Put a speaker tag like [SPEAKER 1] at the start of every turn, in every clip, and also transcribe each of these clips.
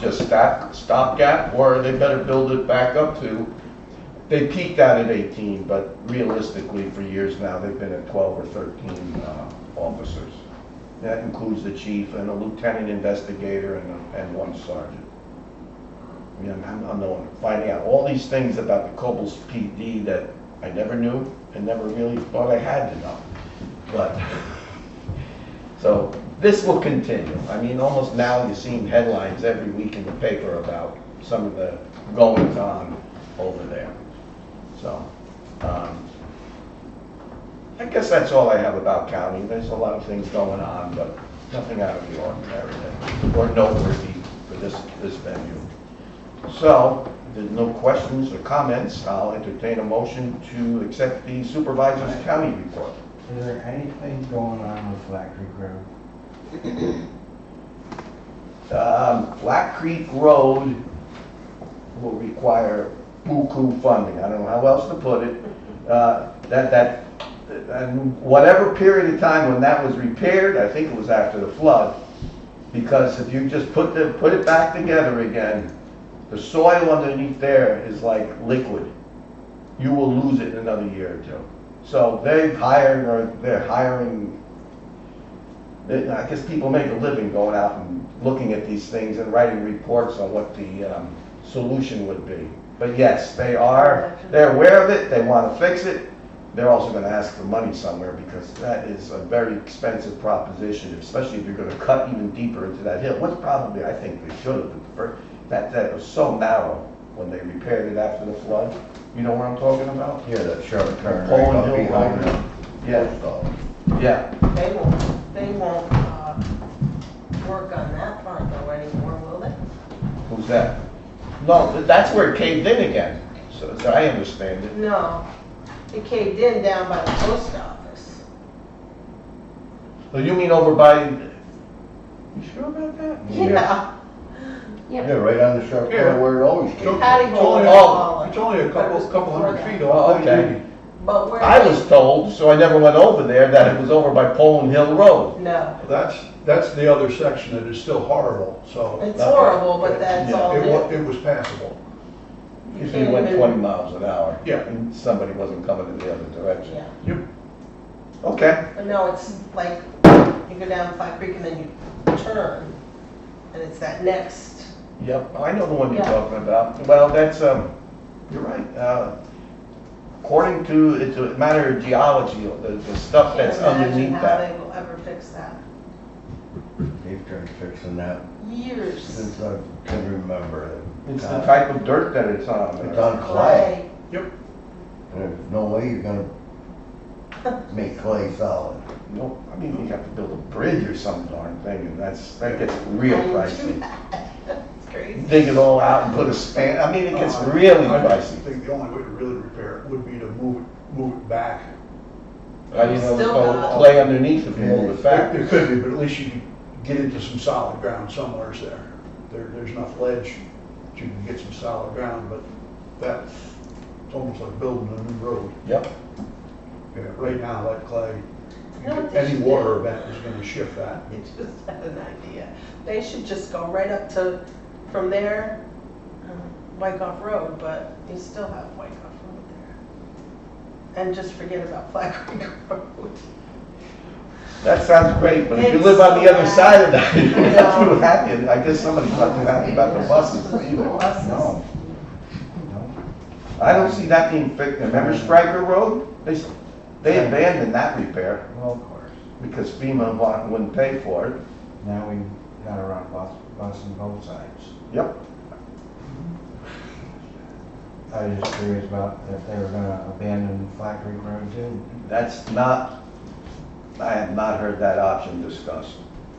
[SPEAKER 1] just stop, stopgap, or they better build it back up to, they peaked out at 18, but realistically, for years now, they've been at 12 or 13 uh, officers. That includes the chief and a lieutenant investigator and, and one sergeant. I mean, I'm, I'm knowing, finding out all these things about the Cobbles PD that I never knew and never really thought I had to know. But, so this will continue. I mean, almost now you're seeing headlines every week in the paper about some of the goings on over there. So, um, I guess that's all I have about county. There's a lot of things going on, but nothing out of the ordinary that- or noteworthy for this, this venue. So, if there's no questions or comments, I'll entertain a motion to accept the supervisor's county report.
[SPEAKER 2] Is there anything going on with Black Creek Road?
[SPEAKER 1] Um, Black Creek Road will require buku funding, I don't know how else to put it. Uh, That, that, and whatever period of time when that was repaired, I think it was after the flood, because if you just put the, put it back together again, the soil underneath there is like liquid. You will lose it in another year or two. So they've hired, or they're hiring they- I guess people make a living going out and looking at these things and writing reports on what the um, solution would be. But yes, they are, they're aware of it, they want to fix it. They're also going to ask for money somewhere because that is a very expensive proposition, especially if you're going to cut even deeper into that hill. What's probably, I think they should have, but for- that, that was so narrow when they repaired it after the flood. You know what I'm talking about?
[SPEAKER 2] Yeah, that sharp turn right
[SPEAKER 1] Poland
[SPEAKER 2] up
[SPEAKER 1] Hill
[SPEAKER 2] behind
[SPEAKER 1] Road.
[SPEAKER 2] the
[SPEAKER 1] Yeah, yeah.
[SPEAKER 3] They won't, they won't, uh, work on that front though anymore, will they?
[SPEAKER 1] Who's that? No, th- that's where it caved in again, so so I understand it.
[SPEAKER 3] No, it caved in down by the post office.
[SPEAKER 1] So you mean over by, you sure about that?
[SPEAKER 3] Yeah,
[SPEAKER 2] Yeah, right on the sharp turn where it always came.
[SPEAKER 3] Patty
[SPEAKER 4] It's
[SPEAKER 3] Bowl
[SPEAKER 4] only-
[SPEAKER 3] and all
[SPEAKER 4] It's only a
[SPEAKER 3] that. But it
[SPEAKER 4] couple,
[SPEAKER 3] was
[SPEAKER 4] couple hundred
[SPEAKER 3] before
[SPEAKER 4] feet
[SPEAKER 3] that.
[SPEAKER 1] Oh,
[SPEAKER 4] off.
[SPEAKER 1] okay.
[SPEAKER 3] But where.
[SPEAKER 1] I was told, so I never went over there, that it was over by Poland Hill Road.
[SPEAKER 3] No,
[SPEAKER 4] That's, that's the other section that is still horrible, so
[SPEAKER 3] it's horrible, but that's
[SPEAKER 1] Yeah,
[SPEAKER 3] all
[SPEAKER 4] it wa,
[SPEAKER 3] there.
[SPEAKER 4] it was passable.
[SPEAKER 3] You
[SPEAKER 1] Usually
[SPEAKER 3] can't
[SPEAKER 1] went
[SPEAKER 3] even-
[SPEAKER 1] 20 miles an hour.
[SPEAKER 4] Yeah.
[SPEAKER 1] And somebody wasn't coming in the other direction.
[SPEAKER 3] Yeah,
[SPEAKER 1] Okay,
[SPEAKER 3] but no, it's like, you go down Flat Creek and then you turn, and it's that next.
[SPEAKER 1] yep, I know the one you're
[SPEAKER 3] Yeah.
[SPEAKER 1] talking about. Well, that's, um, you're right. Uh, According to, it's a matter of geology, the the stuff
[SPEAKER 3] Can't
[SPEAKER 1] that's underneath
[SPEAKER 3] imagine how
[SPEAKER 1] that.
[SPEAKER 3] they will ever fix that.
[SPEAKER 2] They've tried fixing that
[SPEAKER 3] Years.
[SPEAKER 2] since I can remember.
[SPEAKER 1] It's the type of dirt that it's on.
[SPEAKER 2] It's on clay.
[SPEAKER 3] Clay,
[SPEAKER 2] There's no way you're gonna make clay solid.
[SPEAKER 1] No, I mean, you have to build a bridge or some darn thing, and that's, that gets real
[SPEAKER 3] I'm too
[SPEAKER 1] pricey.
[SPEAKER 3] bad. That's crazy.
[SPEAKER 1] Dig it all out and put a span, I mean, it gets
[SPEAKER 3] Oh.
[SPEAKER 4] Uh,
[SPEAKER 1] really
[SPEAKER 4] I just
[SPEAKER 1] pricey.
[SPEAKER 4] think the only way to really repair it would be to move it, move it back.
[SPEAKER 1] I didn't know there's
[SPEAKER 3] Still
[SPEAKER 1] no
[SPEAKER 3] not.
[SPEAKER 1] clay underneath if you move it back.
[SPEAKER 4] There could be, but at least you could get into some solid ground somewheres there. There, there's enough ledge that you can get some solid ground, but that's, it's almost like building a new road.
[SPEAKER 1] Yep,
[SPEAKER 4] Yeah, Right now, that clay,
[SPEAKER 3] You know what they
[SPEAKER 4] any
[SPEAKER 3] should
[SPEAKER 4] water
[SPEAKER 3] do?
[SPEAKER 4] event is gonna shift that.
[SPEAKER 3] I just had an idea. They should just go right up to, from there, uh, Wyckoff Road, but you still have Wyckoff Road there. And just forget about Flat Creek Road.
[SPEAKER 1] that sounds great, but if you live on the other side of that, you're not too
[SPEAKER 3] No.
[SPEAKER 1] happy. I guess somebody's not too happy about the buses either.
[SPEAKER 3] Buses.
[SPEAKER 1] No. I don't see that being fixed. Remember Stryker Road? They, s- they abandoned that repair
[SPEAKER 2] Well, of course.
[SPEAKER 1] because FEMA wa- wouldn't pay for it.
[SPEAKER 2] Now we gotta run bus, bus on both sides.
[SPEAKER 1] Yep.
[SPEAKER 2] I was just curious about if they were gonna abandon Black Creek Road too.
[SPEAKER 1] That's not, I have not heard that option discussed.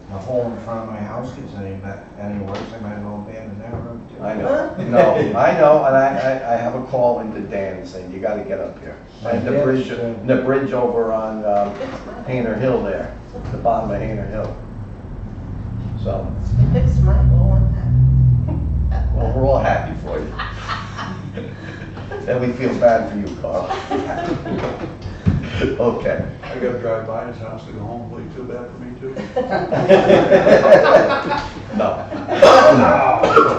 [SPEAKER 2] The hole in front of my house gets any, ba- any worse, I might as well abandon that road too.
[SPEAKER 1] I know, no, I know, and I, I, I have a call into Dan saying, you gotta get up here. And the bridge, and the bridge over on, um,
[SPEAKER 3] It's my,
[SPEAKER 1] Hayner Hill there, the bottom of Hayner Hill. So,
[SPEAKER 3] it's my goal on that.
[SPEAKER 1] well, we're all happy for you. And we feel bad for you, Carl. Okay.
[SPEAKER 4] I gotta drive by his house to go home, will you feel bad for me too?
[SPEAKER 1] No.